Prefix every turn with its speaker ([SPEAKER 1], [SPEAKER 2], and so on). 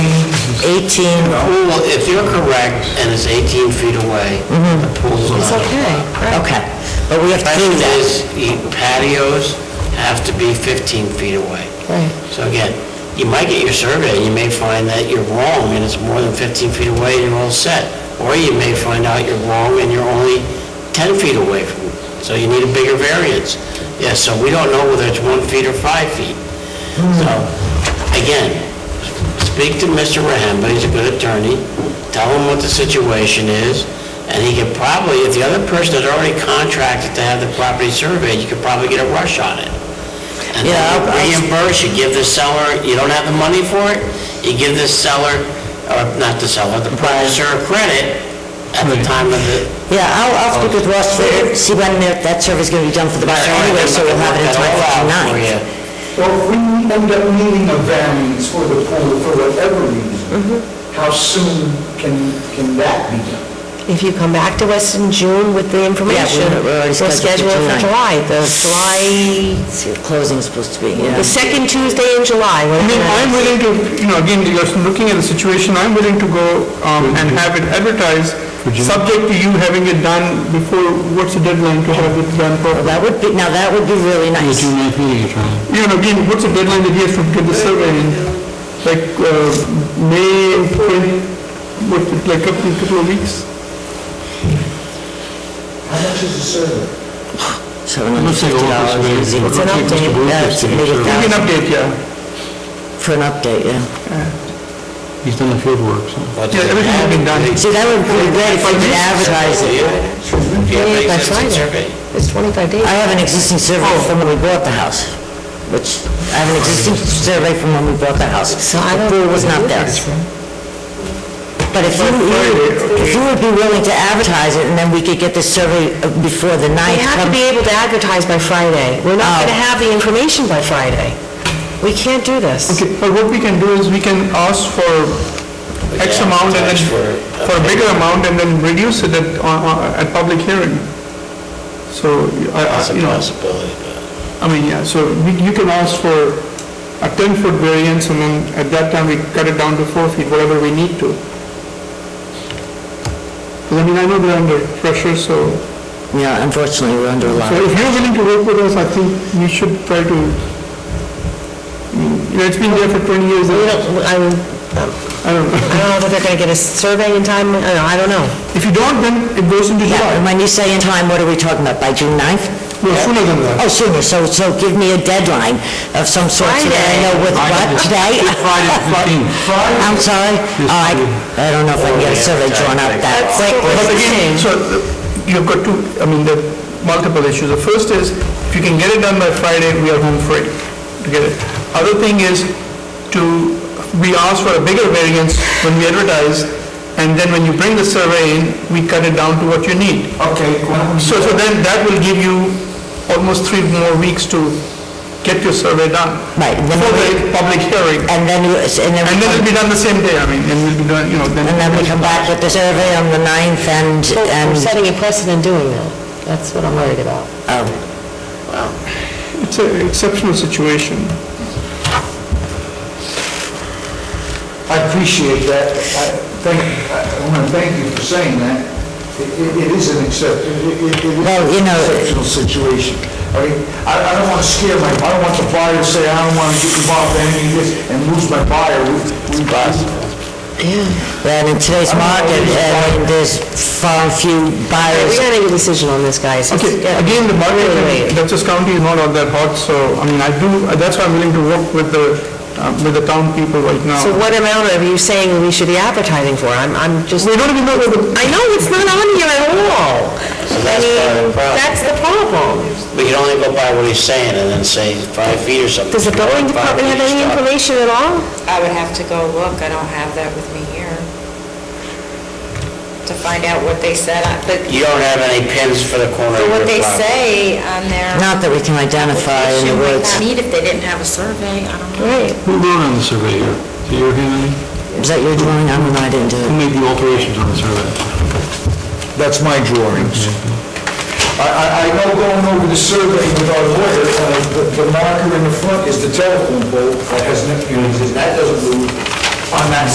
[SPEAKER 1] 18,
[SPEAKER 2] Well, if you're correct, and it's 18 feet away, the pool's not...
[SPEAKER 3] Mm-hmm. It's okay, right?
[SPEAKER 1] okay, but we have to prove
[SPEAKER 2] Question
[SPEAKER 1] that.
[SPEAKER 2] is, you- patios have to be 15 feet away.
[SPEAKER 3] Right.
[SPEAKER 2] So again, you might get your survey, and you may find that you're wrong, and it's more than 15 feet away, and you're all set. Or you may find out you're wrong, and you're only 10 feet away from, so you need a bigger variance. Yeah, so we don't know whether it's one feet or five feet. So, again, speak to Mr. Rahamba, he's a good attorney, tell him what the situation is, and he could probably, if the other person had already contracted to have the property surveyed, you could probably get a rush on it. And then
[SPEAKER 1] Yeah, I-
[SPEAKER 2] you
[SPEAKER 1] I-
[SPEAKER 2] reimburse, you give the seller, you don't have the money for it, you give the seller, or not the seller, the purchaser credit at the time of the...
[SPEAKER 1] Yeah, I'll, I'll speak with Ross later, see when that that survey's going to be done for the buyer anyway, so we'll have it in time for
[SPEAKER 2] I'll allow for
[SPEAKER 1] tonight.
[SPEAKER 2] you.
[SPEAKER 4] Well, if we end up needing a variance for the pool for whatever
[SPEAKER 5] Mm-hmm.
[SPEAKER 4] reason, how soon can, can that be done?
[SPEAKER 3] If you come back to us in June with the information,
[SPEAKER 1] we're- we're already
[SPEAKER 3] we'll
[SPEAKER 1] scheduled for
[SPEAKER 3] schedule it for July, the July,
[SPEAKER 1] See, the closing's supposed to be, yeah.
[SPEAKER 3] the second Tuesday in July,
[SPEAKER 5] I mean,
[SPEAKER 3] whatever.
[SPEAKER 5] I'm willing to, you know, again, you're looking at the situation, I'm willing to go um, and have it advertised, subject to you having it done before, what's the deadline to have it done properly?
[SPEAKER 1] That would be, now that would be really nice.
[SPEAKER 5] You know, again, what's the deadline that he has to get the survey in? Like, uh, May, when- what, like a couple of weeks?
[SPEAKER 4] How much is the survey?
[SPEAKER 1] Seven hundred fifty dollars, easy.
[SPEAKER 3] It's an update.
[SPEAKER 1] Yeah, it's uh, maybe a
[SPEAKER 5] Give me an
[SPEAKER 1] thousand
[SPEAKER 5] update, yeah.
[SPEAKER 1] for an update, yeah.
[SPEAKER 6] He's done the field work, so.
[SPEAKER 2] But-
[SPEAKER 5] Yeah, everything has been done.
[SPEAKER 1] See, that would be great if we could advertise it.
[SPEAKER 2] Do you have an
[SPEAKER 3] Yeah, that's
[SPEAKER 2] existing
[SPEAKER 3] right.
[SPEAKER 2] survey?
[SPEAKER 3] It's 25 days.
[SPEAKER 1] I have an existing survey
[SPEAKER 3] Oh.
[SPEAKER 1] from when we bought the house, which, I have an existing survey from when we bought the house.
[SPEAKER 3] So
[SPEAKER 1] The
[SPEAKER 3] I don't...
[SPEAKER 1] pool was not there. But if you, if you would be willing to advertise it, and then we could get the survey uh, before the
[SPEAKER 3] We
[SPEAKER 1] ninth.
[SPEAKER 3] have to
[SPEAKER 1] come-
[SPEAKER 3] be able to advertise by Friday. We're not
[SPEAKER 1] Oh.
[SPEAKER 3] going to have the information by Friday. We can't do this.
[SPEAKER 5] Okay, but what we can do is we can ask for X
[SPEAKER 2] Yeah,
[SPEAKER 5] amount and then,
[SPEAKER 2] that's for-
[SPEAKER 5] for a bigger amount and then reduce it at, on- on- at public hearing. So, I,
[SPEAKER 2] That's
[SPEAKER 5] I,
[SPEAKER 2] a
[SPEAKER 5] you know,
[SPEAKER 2] possibility, but...
[SPEAKER 5] I mean, yeah, so we- you can ask for a ten-foot variance and then at that time we cut it down to four feet, whatever we need to. 'Cause I mean, I know we're under pressure, so,
[SPEAKER 1] Yeah, unfortunately, we're under a lot.
[SPEAKER 5] so if you're willing to work with us, I think we should try to, you know, it's been there for twenty years.
[SPEAKER 3] We don't, I mean, um,
[SPEAKER 5] I don't know.
[SPEAKER 3] I don't know that they're going to get a survey in time, I don't know, I don't know.
[SPEAKER 5] If you don't, then it goes into
[SPEAKER 1] Yeah, and
[SPEAKER 5] July.
[SPEAKER 1] when you say in time, what are we talking about, by June 9th?
[SPEAKER 5] No, sooner than that.
[SPEAKER 1] Oh, sooner, so, so give me a deadline of some sort, so that I know what, what, today? I'm sorry? Oh, I, I don't know if I can get a survey drawn up that quick.
[SPEAKER 5] But again, so the- you've got two, I mean, there are multiple issues. The first is, if you can get it done by Friday, we are home free to get it. Other thing is to, we ask for a bigger variance when we advertise, and then when you bring the survey in, we cut it down to what you need.
[SPEAKER 4] Okay, well,
[SPEAKER 5] So, so then that will give you almost three more weeks to get your survey done.
[SPEAKER 1] Right, and then
[SPEAKER 5] For
[SPEAKER 1] we-
[SPEAKER 5] the public hearing.
[SPEAKER 1] And then, you- and then, we
[SPEAKER 5] And then it'll
[SPEAKER 1] come-
[SPEAKER 5] be done the same day, I mean, and we'll be done, you know, then...
[SPEAKER 1] and then we come back with the survey on the 9th and,
[SPEAKER 3] We're
[SPEAKER 1] and,
[SPEAKER 3] setting a precedent doing that. That's what I'm worried about.
[SPEAKER 1] oh,
[SPEAKER 5] It's an exceptional situation.
[SPEAKER 4] I appreciate that. I thank, I want to thank you for saying that. It- It, it is an excep, it, it- it is
[SPEAKER 1] Well, you
[SPEAKER 4] an
[SPEAKER 1] know-
[SPEAKER 4] exceptional situation. I mean, I, I don't want to scare my, I don't want the buyer to say, I don't want to get involved in any of this and lose my buyer. We, we,
[SPEAKER 1] well, in today's market, uh, I mean, there's far and few
[SPEAKER 3] We
[SPEAKER 1] buyers.
[SPEAKER 3] gotta make a decision on this, guys. It's-
[SPEAKER 5] Okay,
[SPEAKER 3] yeah.
[SPEAKER 5] again, the market
[SPEAKER 3] Really.
[SPEAKER 5] in Dutchess County is not all that hot, so, I mean, I do, that's why I'm willing to work with the, uh, with the town people right now.
[SPEAKER 3] So what amount are you saying we should be advertising for? I'm, I'm just,
[SPEAKER 5] We don't even know what the...
[SPEAKER 3] I know it's not on here at all.
[SPEAKER 2] that's
[SPEAKER 3] I
[SPEAKER 2] part of
[SPEAKER 3] mean,
[SPEAKER 2] the problem.
[SPEAKER 3] that's the problem.
[SPEAKER 2] We can only go by what he's saying and then say five feet or something.
[SPEAKER 3] Does the building
[SPEAKER 2] Five
[SPEAKER 3] department have
[SPEAKER 2] feet,
[SPEAKER 3] any
[SPEAKER 2] stop.
[SPEAKER 3] information at all?
[SPEAKER 7] I would have to go look, I don't have that with me here, to find out what they said, I- but
[SPEAKER 2] You don't have any pins for the corner of your
[SPEAKER 7] what they
[SPEAKER 2] property.
[SPEAKER 7] say on their
[SPEAKER 1] Not that we can identify in the
[SPEAKER 7] application might
[SPEAKER 1] woods.
[SPEAKER 7] not need if they didn't have a survey, I don't know.
[SPEAKER 3] Right.
[SPEAKER 6] Who wrote on the survey here? Do you hear him?
[SPEAKER 1] Is that your drawing? I don't know, I didn't do
[SPEAKER 6] Who
[SPEAKER 1] it.
[SPEAKER 6] made the alterations on the survey?
[SPEAKER 4] That's my drawings. I, I, I know going over the survey with our lawyer, uh, the, the marker in the front is the telephone pole, that has, no- you know, that doesn't move on that